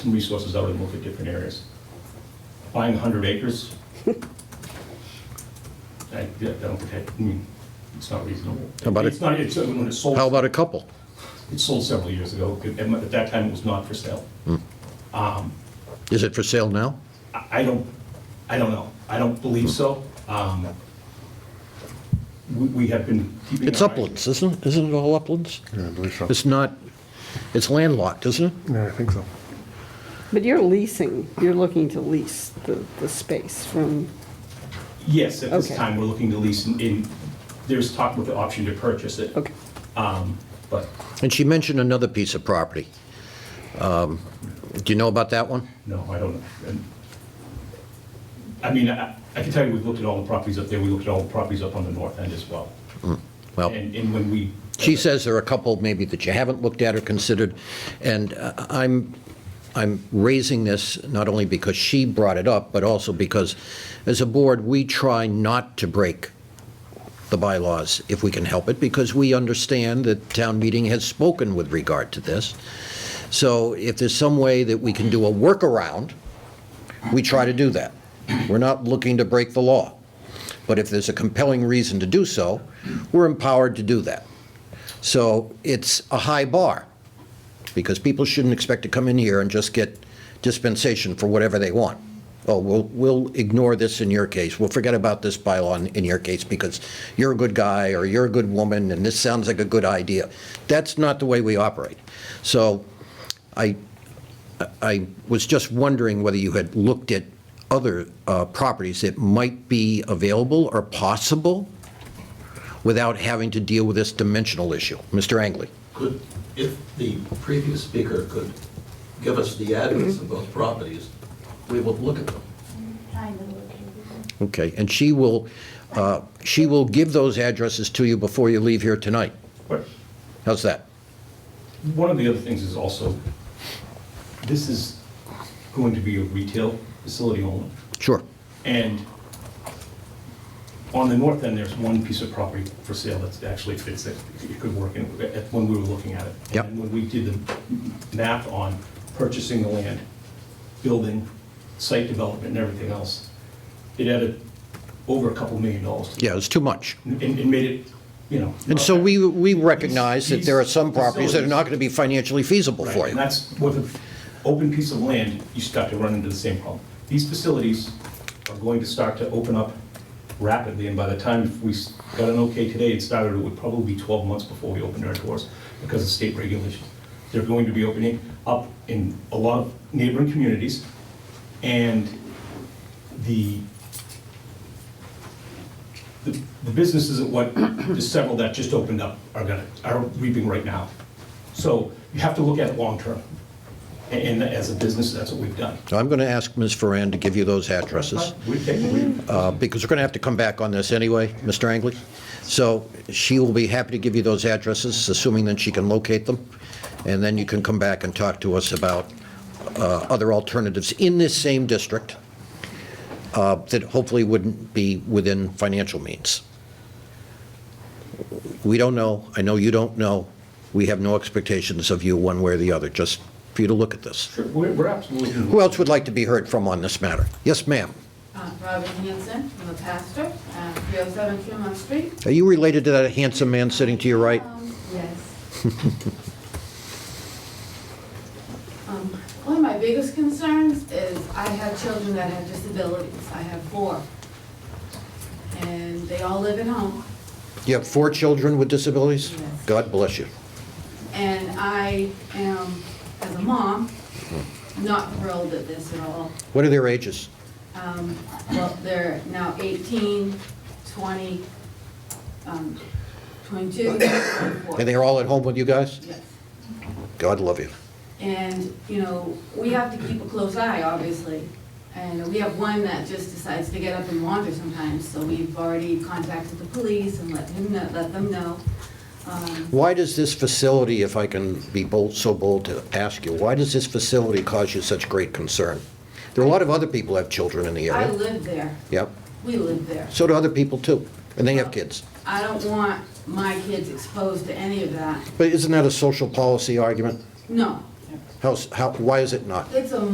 resources out and look at different areas. Buying 100 acres, I I don't think, I mean, it's not reasonable. How about it- It's not, it's, when it's sold. How about a couple? It sold several years ago. At at that time, it was not for sale. Is it for sale now? I I don't, I don't know. I don't believe so. Um, We we have been keeping. It's our eye- uplands, isn't it? Isn't it all uplands? Yeah, I believe so. It's not, it's landlocked, isn't it? Yeah, I think so. But you're leasing, you're looking to lease the, the space from, Yes, at this Okay. time, we're looking to lease in- in, there's talk with the option to purchase it. okay. Um, But And she mentioned another piece of property. Um, Do you know about that one? no, I don't. and- I mean, I I can tell you, we've looked at all the properties up there. We looked at all the properties up on the north end as well. Well, And and when we. she says there are a couple maybe that you haven't looked at or considered, and uh, I'm, I'm raising this not only because she brought it up, but also because, as a board, we try not to break the bylaws if we can help it, because we understand that town meeting has spoken with regard to this. So if there's some way that we can do a workaround, we try to do that. We're not looking to break the law. But if there's a compelling reason to do so, we're empowered to do that. So it's a high bar, because people shouldn't expect to come in here and just get dispensation for whatever they want. Oh, we'll, we'll ignore this in your case, we'll forget about this bylaw in- in your case, because you're a good guy, or you're a good woman, and this sounds like a good idea. That's not the way we operate. So I, I was just wondering whether you had looked at other uh, properties that might be available or possible without having to deal with this dimensional issue. Mr. Angley? Could, if the previous speaker could give us the address of those properties, we will look at them. Kind of located. Okay, and she will, uh, she will give those addresses to you before you leave here tonight. But How's that? One of the other things is also, this is going to be a retail facility only. Sure. And on the north end, there's one piece of property for sale that's actually fits it, it could work in, when we were looking at it. Yep. And when we did the math on purchasing the land, building, site development and everything else, it added over a couple million dollars to Yeah, it's too much. And, and made it, you know. And so we, we recognize that there are some These- these properties that are not going to be financially feasible for Right, you. And that's with an open piece of land, you start to run into the same problem. These facilities are going to start to open up rapidly, and by the time if we s- got an okay today, it started, it would probably be 12 months before we opened our doors because of state regulations. They're going to be opening up in a lot of neighboring communities, and the, the the businesses at what, the several that just opened up are gonna, are reaping right now. So you have to look at it long-term, and and as a business, that's what we've done. So I'm going to ask Ms. Ferrand to give you those addresses. We take, we, uh, because we're going to have to come back on this anyway, Mr. Angley. So she will be happy to give you those addresses, assuming that she can locate them, and then you can come back and talk to us about uh, other alternatives in this same district uh, that hopefully wouldn't be within financial means. We don't know, I know you don't know, we have no expectations of you one way or the other, just for you to look at this. sure, we're we're absolutely. Who else would like to be heard from on this matter? Yes, ma'am. Uh, Robin Hanson, I'm a pastor, uh, 307 Tremont Street. Are you related to that handsome man sitting to your right? Um, Yes. Um, One of my biggest concerns is I have children that have disabilities. I have four. And they all live at home. You have four children with disabilities? Yes. God bless you. And I am, as a mom, not thrilled at this at all. What are their ages? Um, Well, they're now 18, 20, um, 22, and 24. And they're all at home with you guys? Yes. God love you. And, you know, we have to keep a close eye, obviously. And we have one that just decides to get up and wander sometimes, so we've already contacted the police and let him know, let them know. Um, Why does this facility, if I can be bold, so bold to ask you, why does this facility cause you such great concern? There are a lot of other people who have children in the I area. live there, Yep. we live there. So do other people too, and they have kids. I don't want my kids exposed to any of that, But isn't that a social policy argument? no. How's, how, why is it not? It's a